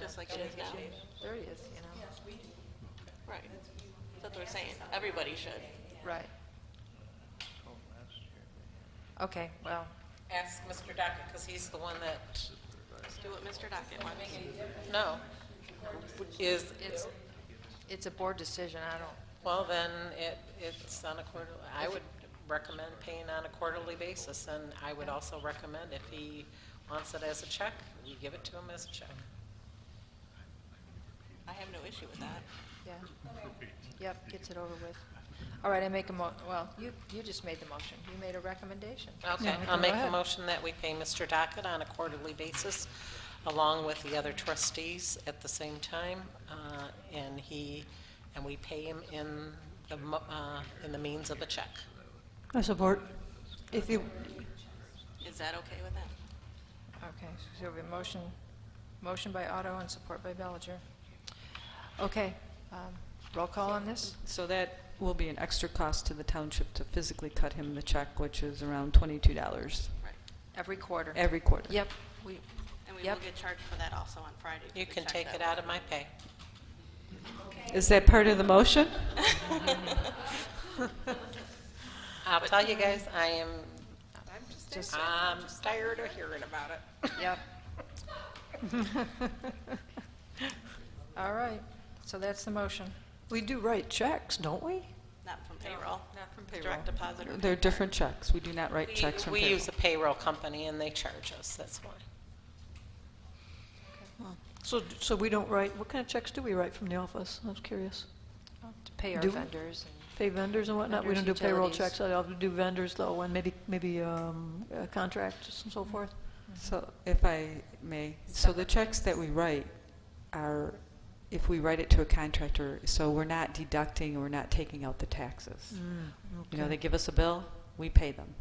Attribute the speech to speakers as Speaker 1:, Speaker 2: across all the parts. Speaker 1: just like it is now.
Speaker 2: There he is, you know,
Speaker 1: Right. That's what we're saying. Everybody should.
Speaker 2: right. Okay, well,
Speaker 3: Ask Mr. Dockett, because he's the one that,
Speaker 1: Let's do what Mr. Dockett wants.
Speaker 3: no, is,
Speaker 2: it's, it's a board decision, I don't,
Speaker 3: well, then it, it's on a quarterly, I would recommend paying on a quarterly basis, and I would also recommend if he wants it as a check, we give it to him as a check.
Speaker 1: I have no issue with that.
Speaker 2: yeah. Yep, gets it over with. All right, I make a mo, well, you, you just made the motion, you made a recommendation.
Speaker 3: Okay,
Speaker 2: So,
Speaker 3: I'll
Speaker 2: go
Speaker 3: make a
Speaker 2: ahead.
Speaker 3: motion that we pay Mr. Dockett on a quarterly basis, along with the other trustees at the same time, uh, and he, and we pay him in the, mo- uh, in the means of a check.
Speaker 4: I support. If you,
Speaker 1: Is that okay with them?
Speaker 2: Okay, so we have a motion, motion by Otto and support by Bellinger. Okay, um, roll call on this?
Speaker 4: so that will be an extra cost to the township to physically cut him the check, which is around twenty-two dollars
Speaker 1: Right.
Speaker 2: Every quarter?
Speaker 4: every quarter.
Speaker 2: Yep, we,
Speaker 1: And we will
Speaker 2: Yep.
Speaker 1: get charged for that also on Friday. for
Speaker 3: You
Speaker 1: the
Speaker 3: can
Speaker 1: check
Speaker 3: take
Speaker 1: that
Speaker 3: it
Speaker 1: we-
Speaker 3: out of my pay.
Speaker 4: Is that part of the motion?
Speaker 3: I'll tell you guys, I am, um,
Speaker 2: just,
Speaker 3: I'm tired of hearing about it.
Speaker 2: yep. All right, so that's the motion.
Speaker 4: We do write checks, don't we?
Speaker 1: Not from payroll.
Speaker 4: Not from
Speaker 1: Direct deposit or.
Speaker 4: They're different checks. We do not write
Speaker 3: We-
Speaker 4: checks from
Speaker 3: We
Speaker 4: payroll.
Speaker 3: use a payroll company, and they charge us, that's why.
Speaker 5: So, so we don't write, what kind of checks do we write from the office? I was curious.
Speaker 2: To pay our
Speaker 5: Do-
Speaker 2: vendors and
Speaker 5: Pay vendors and whatnot? We don't
Speaker 2: Vendors,
Speaker 5: do payroll
Speaker 2: utilities.
Speaker 5: checks, I often do vendors though, and maybe, maybe um, uh, contracts and so forth.
Speaker 4: So, if I may, so the checks that we write are, if we write it to a contractor, so we're not deducting, we're not taking out the taxes. You know, they give us a bill, we pay them.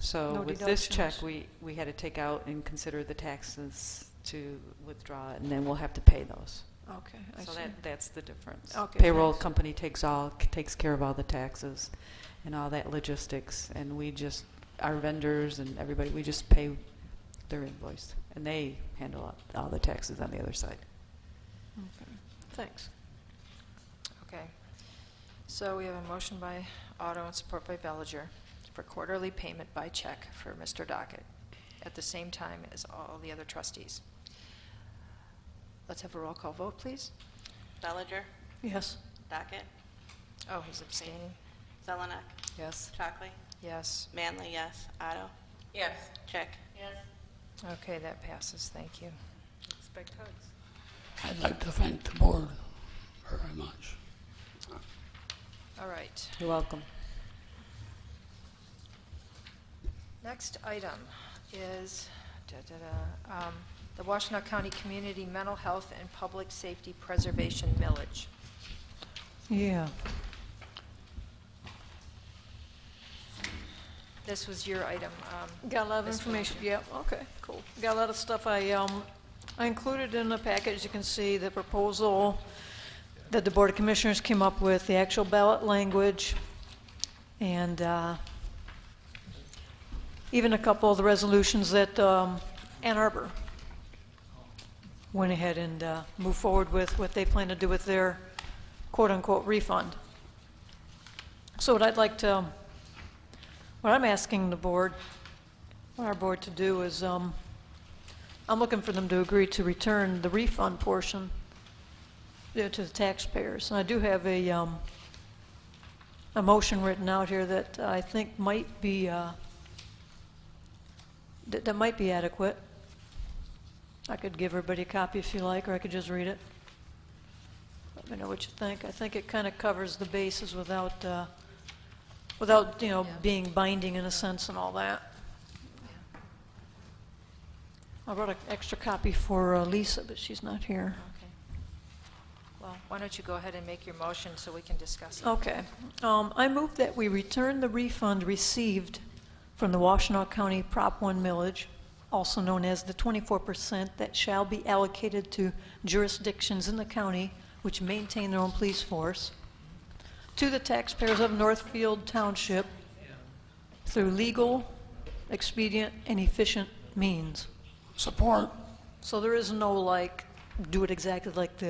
Speaker 4: So
Speaker 5: No
Speaker 4: with this check,
Speaker 5: deductions.
Speaker 4: we, we had to take out and consider the taxes to withdraw it, and then we'll have to pay those.
Speaker 5: Okay, I
Speaker 4: So
Speaker 5: see.
Speaker 4: that, that's the difference.
Speaker 5: Okay,
Speaker 4: Payroll
Speaker 5: thanks.
Speaker 4: company takes all, takes care of all the taxes and all that logistics, and we just, our vendors and everybody, we just pay their invoice, and they handle all- all the taxes on the other side.
Speaker 5: Okay. Thanks.
Speaker 2: Okay. So we have a motion by Otto and support by Bellinger for quarterly payment by check for Mr. Dockett at the same time as all the other trustees. Let's have a roll call vote, please.
Speaker 1: Bellinger,
Speaker 5: Yes.
Speaker 1: Dockett,
Speaker 2: Oh, he's abstaining.
Speaker 1: Zelenak,
Speaker 4: Yes.
Speaker 1: Chockley,
Speaker 2: Yes.
Speaker 1: Manley, yes. Otto,
Speaker 3: Yes.
Speaker 1: check.
Speaker 2: Okay, that passes. Thank you.
Speaker 3: Expect hugs.
Speaker 6: I'd like to thank the board very much.
Speaker 2: All right.
Speaker 4: You're welcome.
Speaker 2: Next item is da-da-da, um, the Washtenaw County Community Mental Health and Public Safety Preservation Millage.
Speaker 5: Yeah.
Speaker 2: This was your item. um,
Speaker 5: Got a lot of
Speaker 2: Ms.
Speaker 5: information,
Speaker 2: Wiltshire.
Speaker 5: yeah, okay, cool. Got a lot of stuff I, um, I included in the package, you can see the proposal that the Board of Commissioners came up with, the actual ballot language, and, uh, even a couple of the resolutions that, um, Ann Arbor went ahead and, uh, moved forward with, what they plan to do with their quote-unquote refund. So what I'd like to, um, what I'm asking the board, what our board to do is, um, I'm looking for them to agree to return the refund portion yeah, to the taxpayers. And I do have a, um, a motion written out here that I think might be, uh, that, that might be adequate. I could give everybody a copy if you like, or I could just read it. Let me know what you think. I think it kind of covers the bases without, uh, without, you know,
Speaker 2: Yeah.
Speaker 5: being binding in a sense and all that. I brought an extra copy for uh, Lisa, but she's not here.
Speaker 2: Okay. Well, why don't you go ahead and make your motion so we can discuss it?
Speaker 5: Okay. Um, I move that we return the refund received from the Washtenaw County Prop 1 millage, also known as the 24% that shall be allocated to jurisdictions in the county which maintain their own police force, to the taxpayers of Northfield Township through legal, expedient, and efficient means.
Speaker 6: Support,
Speaker 5: So there is no like do it exactly like this.